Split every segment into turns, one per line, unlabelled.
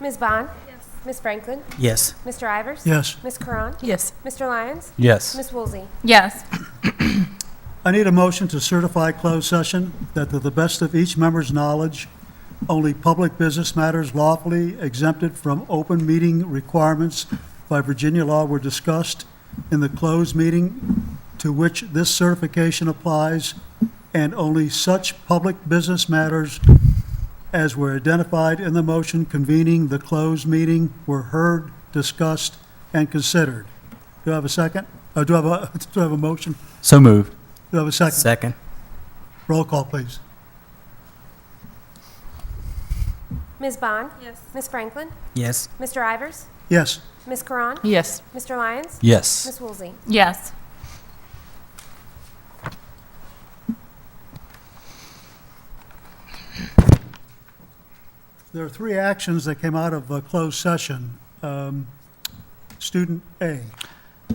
Ms. Bond? Yes. Ms. Franklin?
Yes.
Mr. Ivers?
Yes.
Ms. Karan?
Yes.
Mr. Lyons?
Yes.
Ms. Woolsey?
Yes.
I need a motion to certify closed session that to the best of each member's knowledge, only public business matters lawfully exempted from open meeting requirements by Virginia law were discussed in the closed meeting to which this certification applies, and only such public business matters as were identified in the motion convening the closed meeting were heard, discussed, and considered. Do I have a second? Uh, do I have a, do I have a motion?
So moved.
Do I have a second?
Second.
Roll call, please.
Ms. Bond? Yes. Ms. Franklin?
Yes.
Mr. Ivers?
Yes.
Ms. Karan?
Yes.
Mr. Lyons?
Yes.
Ms. Woolsey?
Yes.
There are three actions that came out of uh, closed session. Um, Student A,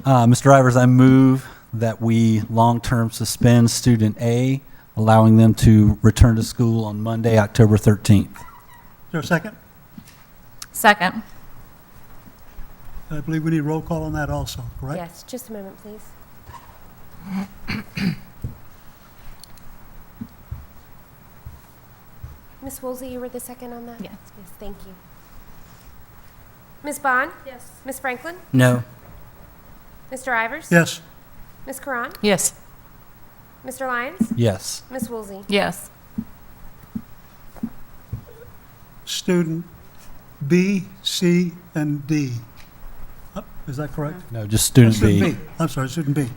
Uh, Mr. Ivers, I move that we long-term suspend student A, allowing them to return to school on Monday, October 13th.
is there a second?
Second.
I believe we need roll call on that also, correct?
Yes, just a moment, please. Ms. Woolsey, you were the second on that?
Yes.
Yes, thank you. Ms. Bond? Yes. Ms. Franklin?
No.
Mr. Ivers?
Yes.
Ms. Karan?
Yes.
Mr. Lyons?
Yes.
Ms. Woolsey?
Yes.
Student B, C, and D. Uh, Is that correct?
No, just student
Student
B.
B, I'm sorry, student B.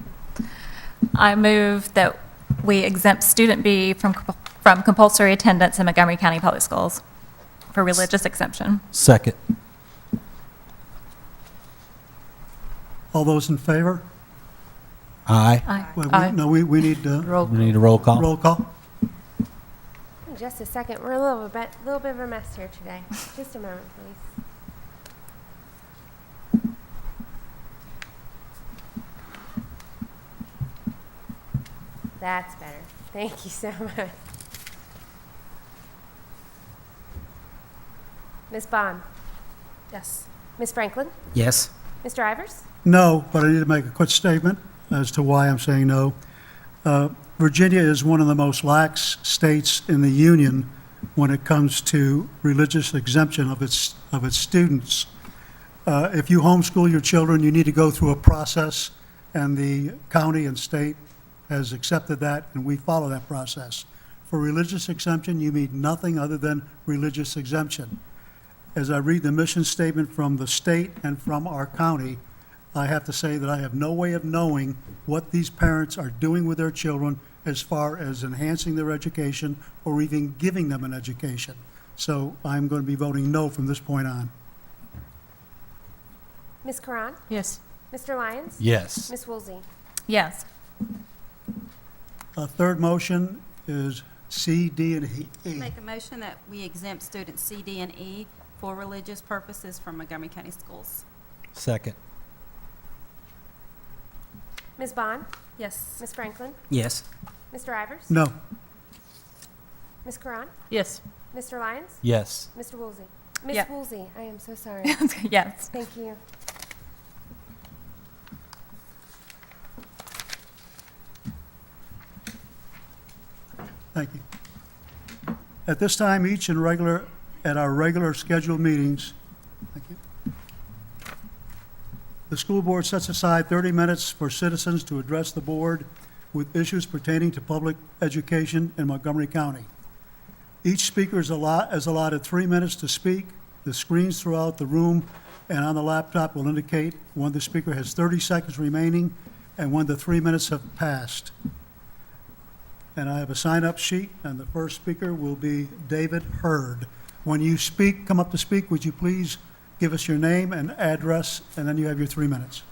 I move that we exempt student B from, compu- from compulsory attendance in Montgomery County Public Schools for religious exemption.
Second.
All those in favor?
Aye.
Aye.
Wait, we-
Aye.
No, we, we need uh,
We need a roll call.
roll call.
Just a second, we're a little bit, little bit of a mess here today. Just a moment, please. That's better. Thank you so much. Ms. Bond? Yes. Ms. Franklin?
Yes.
Mr. Ivers?
No, but I need to make a quick statement as to why I'm saying no. Uh, Virginia is one of the most lax states in the Union when it comes to religious exemption of its, of its students. Uh, If you homeschool your children, you need to go through a process, and the county and state has accepted that, and we follow that process. For religious exemption, you need nothing other than religious exemption as I read the mission statement from the state and from our county, I have to say that I have no way of knowing what these parents are doing with their children as far as enhancing their education or even giving them an education. So I'm going to be voting no from this point on.
Ms. Karan?
Yes.
Mr. Lyons?
Yes.
Ms. Woolsey?
Yes.
A third motion is C, D, and E.
Make a motion that we exempt students C, D, and E for religious purposes from Montgomery County Schools.
Second.
Ms. Bond?
Yes.
Ms. Franklin?
Yes.
Mr. Ivers?
No.
Ms. Karan?
Yes.
Mr. Lyons?
Yes.
Mr. Woolsey? Ms.
Yeah.
Woolsey, I am so sorry.
Yes.
Thank you.
Thank you. At this time, each and regular, at our regular scheduled meetings, thank you. The school board sets aside 30 minutes for citizens to address the board with issues pertaining to public education in Montgomery County. Each speaker is allowed, is allotted three minutes to speak. The screens throughout the room and on the laptop will indicate when the speaker has 30 seconds remaining and when the three minutes have passed. And I have a sign-up sheet, and the first speaker will be David Hurd. When you speak, come up to speak, would you please give us your name and address, and then you have your three minutes.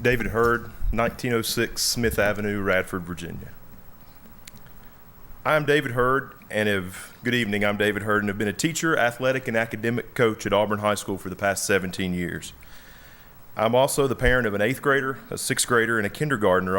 David Hurd, 1906 Smith Avenue, Radford, Virginia. I'm David Hurd, and have good evening. I'm David Hurd, and have been a teacher, athletic, and academic coach at Auburn High School for the past 17 years. I'm also the parent of an eighth grader, a sixth grader, and a kindergartner,